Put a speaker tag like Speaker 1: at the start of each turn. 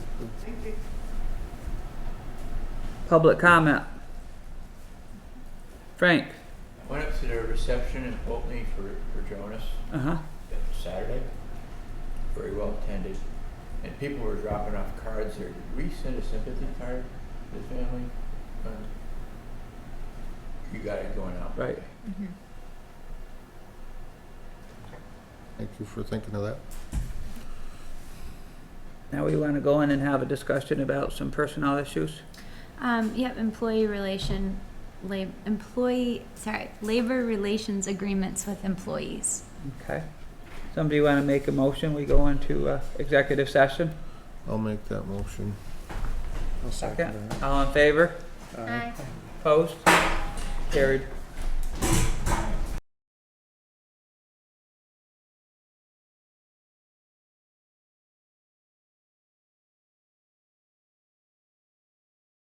Speaker 1: Public comment. Frank.
Speaker 2: Went up to the reception in Pulteney for, for Jonas
Speaker 1: Uh huh.
Speaker 2: Saturday. Very well attended. And people were dropping off cards there. Did we send a sympathy card to the family? Um, You got it going out.
Speaker 1: Right.
Speaker 2: okay.
Speaker 3: Thank you for thinking of that.
Speaker 1: Now we want to go in and have a discussion about some personnel issues.
Speaker 4: Um, yep, employee relation, lab, employee, sorry, labor relations agreements with employees.
Speaker 1: Okay. Somebody want to make a motion? We go into uh, executive session.
Speaker 3: I'll make that motion.
Speaker 1: Second. All in favor? Opposed? Carried.